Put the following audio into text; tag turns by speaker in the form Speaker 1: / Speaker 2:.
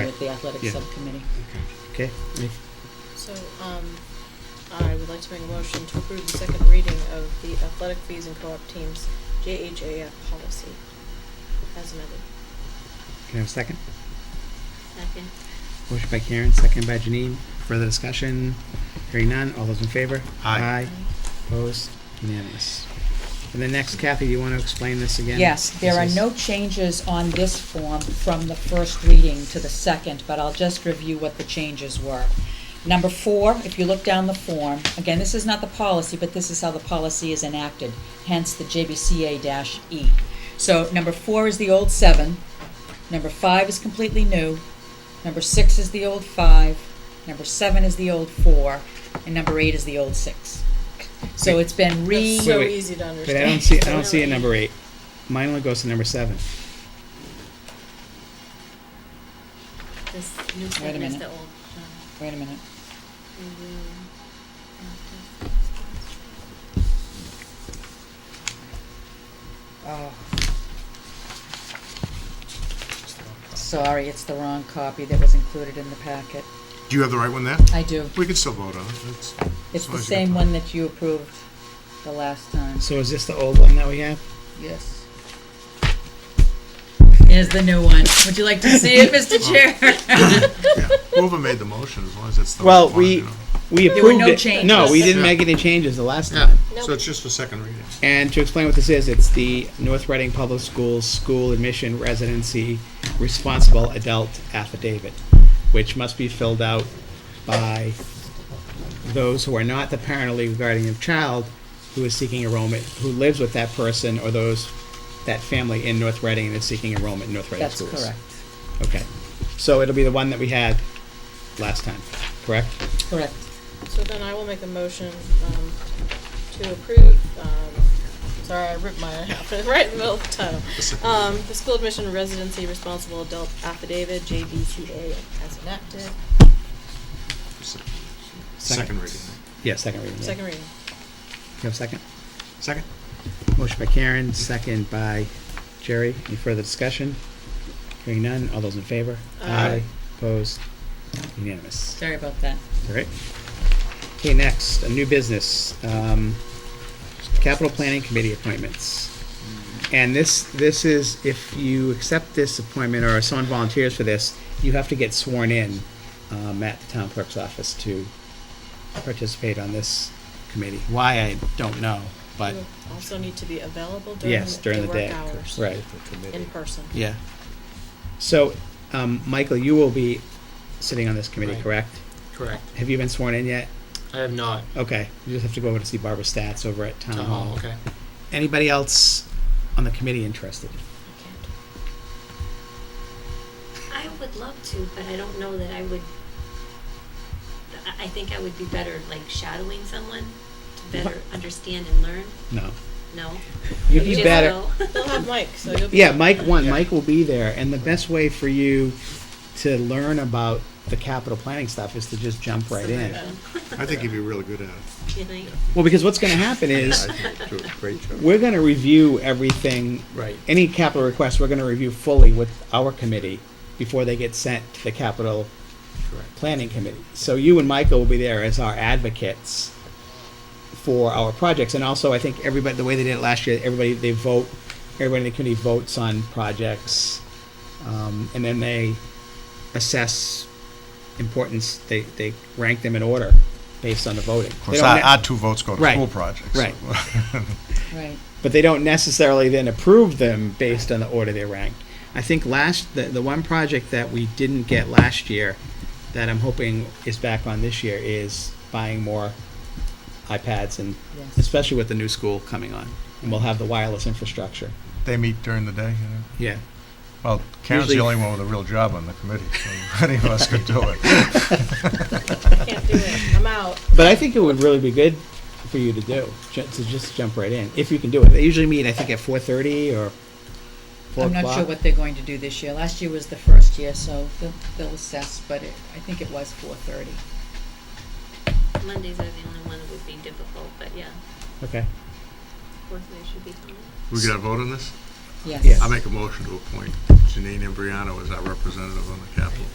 Speaker 1: athletics
Speaker 2: Yeah.
Speaker 1: subcommittee.
Speaker 2: Okay, any-
Speaker 3: So, um, I would like to make a motion to approve the second reading of the athletic fees and co-op teams JHAF policy as amended.
Speaker 2: can I have a second?
Speaker 3: Second.
Speaker 2: Motion by Karen, second by Janine. Further discussion? Hearing none. All those in favor?
Speaker 4: Aye.
Speaker 2: Opposed? Unanimous. And then next, Kathy, do you want to explain this again?
Speaker 1: Yes, there are
Speaker 2: This is-
Speaker 1: no changes on this form from the first reading to the second, but I'll just review what the changes were. Number four, if you look down the form, again, this is not the policy, but this is how the policy is enacted, hence the JBCA dash E. So number four is the old seven, number five is completely new, number six is the old five, number seven is the old four, and number eight is the old six. So it's been re.
Speaker 3: That's so
Speaker 2: wait.
Speaker 3: easy to
Speaker 2: But I
Speaker 3: understand.
Speaker 2: don't see, I don't see a number eight. Mine only goes to number seven.
Speaker 5: This new
Speaker 1: Wait a
Speaker 5: segment is
Speaker 1: minute. Mm-hmm.
Speaker 5: the old. um,
Speaker 1: Wait a minute.
Speaker 5: we will not just- Mm-hmm.
Speaker 1: Oh. Sorry, it's the wrong copy that was included in the packet.
Speaker 4: Do you have the right one there?
Speaker 1: I do.
Speaker 4: We can still vote on it. It's,
Speaker 1: It's
Speaker 4: long
Speaker 1: the
Speaker 4: as you get
Speaker 1: same
Speaker 4: the-
Speaker 1: one that you approved the last time.
Speaker 2: So is this the old one that we have?
Speaker 1: Yes. Here's the new one. Would you like to see it, Mr.
Speaker 2: Oh,
Speaker 1: Chair?
Speaker 4: yeah. Whoever made the motion, as long as it's the
Speaker 2: Well,
Speaker 4: right one,
Speaker 2: we-
Speaker 4: you know.
Speaker 2: We
Speaker 1: There were
Speaker 2: approved
Speaker 1: no
Speaker 2: it. No, we
Speaker 1: changes.
Speaker 2: didn't
Speaker 4: Yeah.
Speaker 2: make any changes the last time.
Speaker 4: Yeah, so
Speaker 3: Nope.
Speaker 4: it's just for second reading.
Speaker 2: And to explain what this is, it's the North Reading Public Schools School Admission Residency Responsible Adult Affidavit, which must be filled out by those who are not the parent or legal guardian of child who is seeking enrollment, who lives with that person or those, that family in North Reading and is seeking enrollment in North Reading
Speaker 1: That's
Speaker 2: schools.
Speaker 1: correct.
Speaker 2: Okay. So it'll be the one that we had last time, correct?
Speaker 1: Correct.
Speaker 3: So then I will make a motion, um, to approve, um, sorry, I ripped mine off, right in the middle of the title. Um, the school admission residency responsible adult affidavit, JBCA as enacted,
Speaker 4: Se- Second reading.
Speaker 2: Yeah, second reading. yeah.
Speaker 3: second reading.
Speaker 2: You have a second?
Speaker 4: Second?
Speaker 2: Motion by Karen, second by Jerry. Any further discussion? Hearing none, all those in favor?
Speaker 3: Aye.
Speaker 2: Opposed? Unanimous.
Speaker 1: Sorry about that.
Speaker 2: All right. Okay, next, a new business, um, capital planning committee appointments. And this, this is, if you accept this appointment or if someone volunteers for this, you have to get sworn in, um, at the town clerk's office to participate on this committee. Why, I don't know, but
Speaker 3: You will also need to be available during
Speaker 2: yes, during
Speaker 3: the
Speaker 2: the
Speaker 3: work
Speaker 2: day.
Speaker 3: hours.
Speaker 2: Right.
Speaker 3: In person.
Speaker 2: Yeah. So, um, Michael, you will be sitting on this committee,
Speaker 6: Right.
Speaker 2: correct?
Speaker 6: Correct.
Speaker 2: Have you been sworn in yet?
Speaker 6: I have not.
Speaker 2: Okay, you just have to go over to see Barbara Stats over at Town Hall.
Speaker 6: Oh, okay.
Speaker 2: Anybody else on the committee interested?
Speaker 5: I would love to, but I don't know that I would. I, I think I would be better like shadowing someone to better understand and learn.
Speaker 2: No.
Speaker 5: No.
Speaker 2: You'd be
Speaker 5: Just
Speaker 2: better.
Speaker 5: go.
Speaker 3: We'll have Mike, so you'll be.
Speaker 2: Yeah, Mike won.
Speaker 6: Yeah.
Speaker 2: Mike will be there, and the best way for you to learn about the capital planning stuff is to just jump right in.
Speaker 4: I think you'd be really good at it.
Speaker 5: You know,
Speaker 2: Well, because what's going to happen is
Speaker 4: do a great job.
Speaker 2: we're going to review everything
Speaker 6: Right.
Speaker 2: any capital request, we're gonna review fully with our committee before they get sent to the capital
Speaker 6: Correct.
Speaker 2: planning committee. So you and Michael will be there as our advocates for our projects, and also I think everybody, the way they did it last year, everybody, they vote, everybody in the committee votes on projects, um, and then they assess importance, they, they rank them in order based on the voting.
Speaker 4: Of
Speaker 2: They
Speaker 4: course,
Speaker 2: don't
Speaker 4: our,
Speaker 2: ne-
Speaker 4: our two votes go to
Speaker 2: Right.
Speaker 4: school projects.
Speaker 2: Right.
Speaker 1: Right.
Speaker 2: but they don't necessarily then approve them based on the order they're ranked. I think last the, the one project that we didn't get last year that I'm hoping is back on this year is buying more iPads and
Speaker 1: Yes.
Speaker 2: especially with the new school coming on and we'll have the wireless infrastructure.
Speaker 4: They meet during the day, you know.
Speaker 2: Yeah.
Speaker 4: Well, Karen's the
Speaker 2: Usually-
Speaker 4: only one with a real job on the committee, so any of us could do it.
Speaker 3: I can't do it, I'm out.
Speaker 2: But I think it would really be good for you to do ju- to just jump right in if you can do it. They usually meet I think at 4:30 or 4
Speaker 1: I'm
Speaker 2: o'clock.
Speaker 1: not sure what they're going to do this year. Last year was the first year, so they'll, they'll assess, but it, I think it was four thirty.
Speaker 5: Mondays are the only one that would be difficult, but yeah,
Speaker 2: okay.
Speaker 5: Thursday should be fine.
Speaker 4: We got a vote on this?
Speaker 1: Yes.
Speaker 2: Yeah.
Speaker 4: I make a motion to appoint Janine Embriano as our representative on the capital